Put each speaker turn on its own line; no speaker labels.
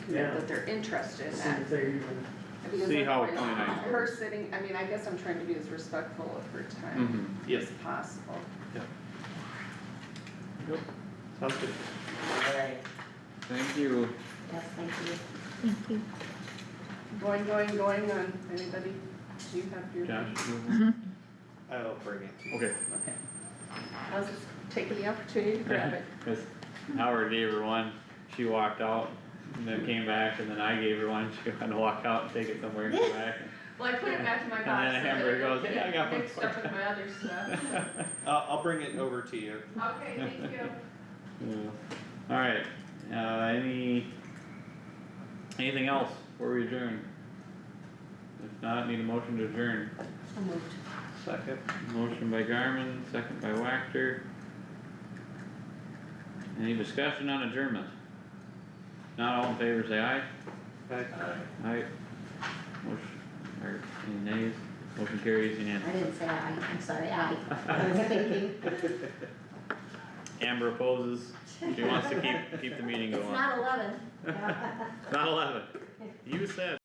Yeah.
that they're interested in
See
that.
if they even,
Because
See how it
otherwise,
plays out.
Her sitting, I mean, I guess I'm trying to be as respectful of her time
Mhm.
as possible.
Yep, sounds good.
Alright,
Thank you.
yes, thank you.
Thank you.
Going, going, going on, anybody, do you have your?
Josh?
I'll bring it to you.
Okay.
Okay. I was just taking the opportunity to grab it.
Cause Howard gave her one, she walked out and then came back and then I gave her one, she had to walk out and take it somewhere and come back.
Well, I put it back in my
And
box. so
then
that
Amber
it didn't
goes,
get
"Yeah, I got one
Mixed
for
up with my other stuff.
I'll, Uh, I'll bring it over to you.
Okay, thank you.
Yeah. Alright, uh, any, anything else before we adjourn? If not, need a motion to adjourn.
So moved.
Second.
Motion by Garmin, second by Wactor. Any discussion on adjournment? Not all in favor, say aye.
Okay.
Aye. Motion, or any nays? Motion carries
I
unanimous.
didn't say I, I'm sorry, I, I was thinking,
Amber opposes. She wants to keep, keep the meeting
it's
going.
not eleven.
Not eleven. You said.